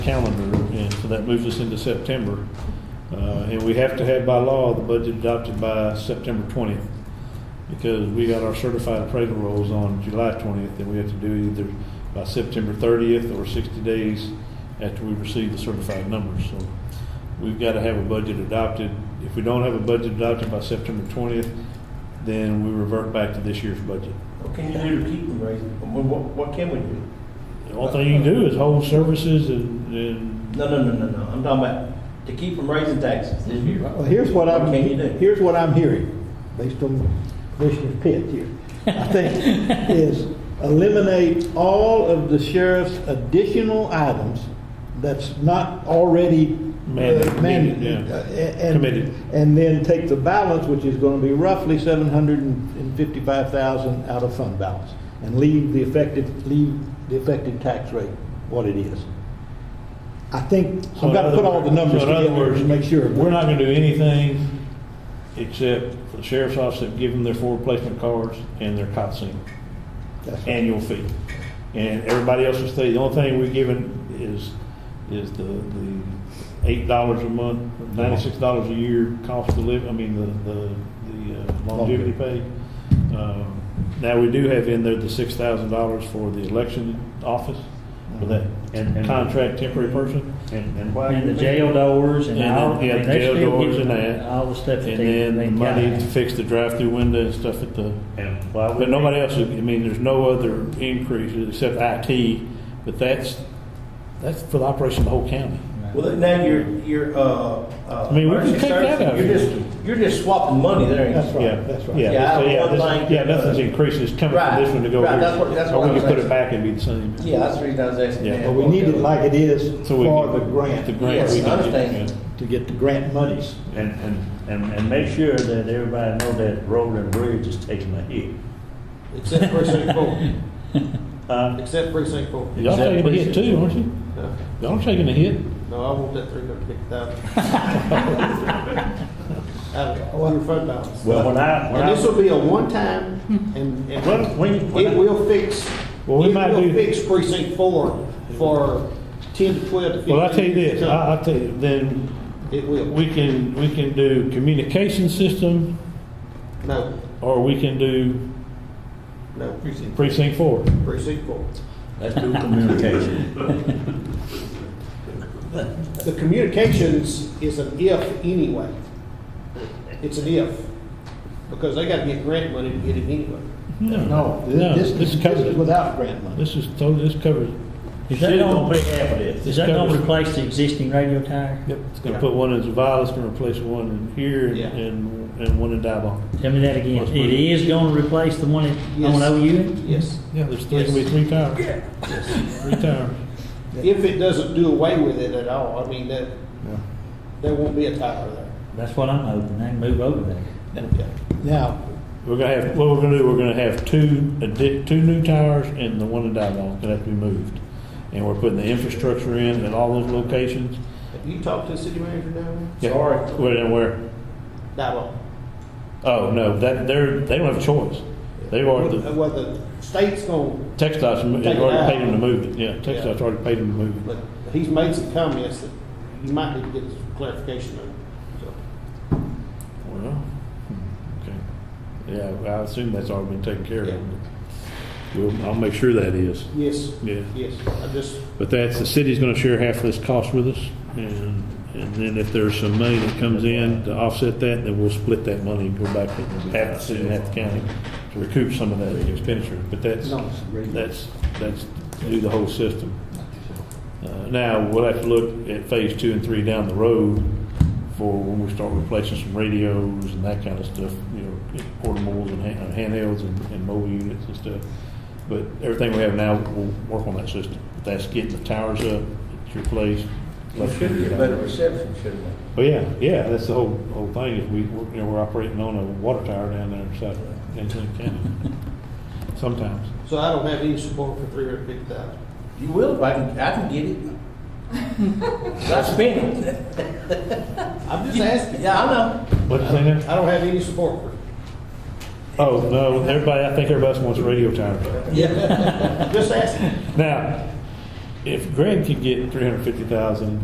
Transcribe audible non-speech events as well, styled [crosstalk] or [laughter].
calendar, and so that moves us into September. Uh, And we have to have by law the budget adopted by September 20th, because we got our certified appraisal rolls on July 20th, and we have to do either by September 30th or 60 days after we receive the certified numbers. So we've got to have a budget adopted. If we don't have a budget adopted by September 20th, then we revert back to this year's budget. What can you do to keep them raising? What, what, what can we do? The only thing you can do is hold services and, and No, no, no, no, no. I'm talking about to keep from raising taxes this year. Well, here's what I'm, What can you do? here's what I'm hearing, based on Commissioner Pitt here, [laughs] I think, is eliminate all of the sheriff's additional items that's not already uh, Mandated, mandated. yeah. uh, and- Committed. And then take the balance, which is gonna be roughly seven hundred and fifty-five thousand out of fund balance, and leave the effective, leave the effective tax rate what it is. I think, So I've in gotta other put all the words- numbers so in other together words, to make sure. We're not gonna do anything except for the sheriff's office to give them their four replacement cars and their cot center, That's right. annual fee. And everybody else will stay, the only thing we're giving is, is the, the eight dollars a month, ninety-six dollars a year cost to live, I mean, the, the, the uh, longevity pay. Um, Now, we do have in there the six thousand dollars for the election office, for that Mm-hmm. And- and- contract temporary person. And, and why? And the jail doors and And all, then, yeah, and they jail still doors get and that. all the stuff that And they, then they the money to got. fix the drive-through window and stuff at the, And why would? but nobody else, I mean, there's no other increases except IT, but that's, that's for the operation of the whole county. Well, now you're, you're, uh, uh. I mean, we can emergency take that services, out. You're just, you're just swapping money there. ain't you? That's right. Yeah, Yeah, right. Yeah, so, I yeah, don't this- like- yeah, nothing's increased, it's coming from Right, this one to go right, here. that's what- that's what Or we I'm can put it saying. back and be the same. Yeah, that's the reason I was asking. Yeah. that. But we need it like it is So we for can- the grant, The grant. Yes, we can I get, understand. yeah. to get the grant monies. And, and, and, and make sure that everybody know that road and bridge is taking a hit. Except precinct four. Uh, Except precinct four. Y'all taking a hit Exactly. too, aren't you? No, Y'all taking a hit. no, I want that three hundred fifty thousand. Out of your fund balance. well, when I, when And this I, will be a one-time, and, and When- when- when I- it will fix, it Well, we might do- will fix precinct four for ten to twelve to fifteen. Well, I tell you years this, to I, come. I tell you, then It will, we can, we can do communication system, no, or we can do no, precinct four. precinct four. let's do communication. The communications is an if anyway. It's an if, because they gotta get grant money to get it anyway. No, th- No, this, this this covers is it. without grant money. This is totally, this covers. it. Is Shit that on gonna, big half of this. is that gonna covers- replace the existing radio tower? Yep. It's gonna put one in Zavala's, gonna replace one in here and, Yeah. and, and one in Dibon. Tell me that again. It is gonna replace the one at, on Yes. OU? Yes. Yeah, there's three, gonna be three towers. Three towers. If it doesn't do away with it at all, I mean, that, Yeah. there won't be a tower there. That's what I'm hoping. They can move over there. Now, We're gonna have, what we're gonna do, we're gonna have two, addi- two new towers and the one in Dibon, gonna have to be moved. And we're putting the infrastructure in at all those locations. Have you talked to the city manager down Yeah. there? Sorry. Where, and where, Dabo. oh, no, that, they're, they don't have a choice. They've already, the Well, the state's going, Texas has Take it out. already paid them to move it, yeah, Texas already paid them to move it. but he's made some comments that you might need to get some clarification on. So, Well, hmm, okay. Yeah, well, I assume that's already been taken care Yeah. of. Well, I'll make sure that is. Yes, Yeah. yes, I just, But that's, the city's gonna share half of this cost with us, and, and then if there's some money that comes in to offset that, then we'll split that money and go back to half the city and half the county to recoup some of that expenditure, but that's, No, it's regular. that's, that's to do the whole system. Uh, Now, we'll have to look at phase two and three down the road for when we start replacing some radios and that kind of stuff, you know, portables and hand- handhelds and and mobile units and stuff. But everything we have now, we'll work on that system. That's getting the towers up, it's replaced. reception, shouldn't it? Oh, yeah, yeah, that's the whole, whole thing, is we, we're, you know, we're operating on a water tower down there in South, in Clinton County, sometimes. so I don't have any support for three hundred fifty thousand. You will, if I can, I can get it. I spent it. I'm just asking. Yeah, I know. What'd you say now? I don't have any support for it. Oh, no, [laughs] everybody, I think everybody wants a radio tower. Yeah. Just asking. Now, if Greg could get three hundred fifty thousand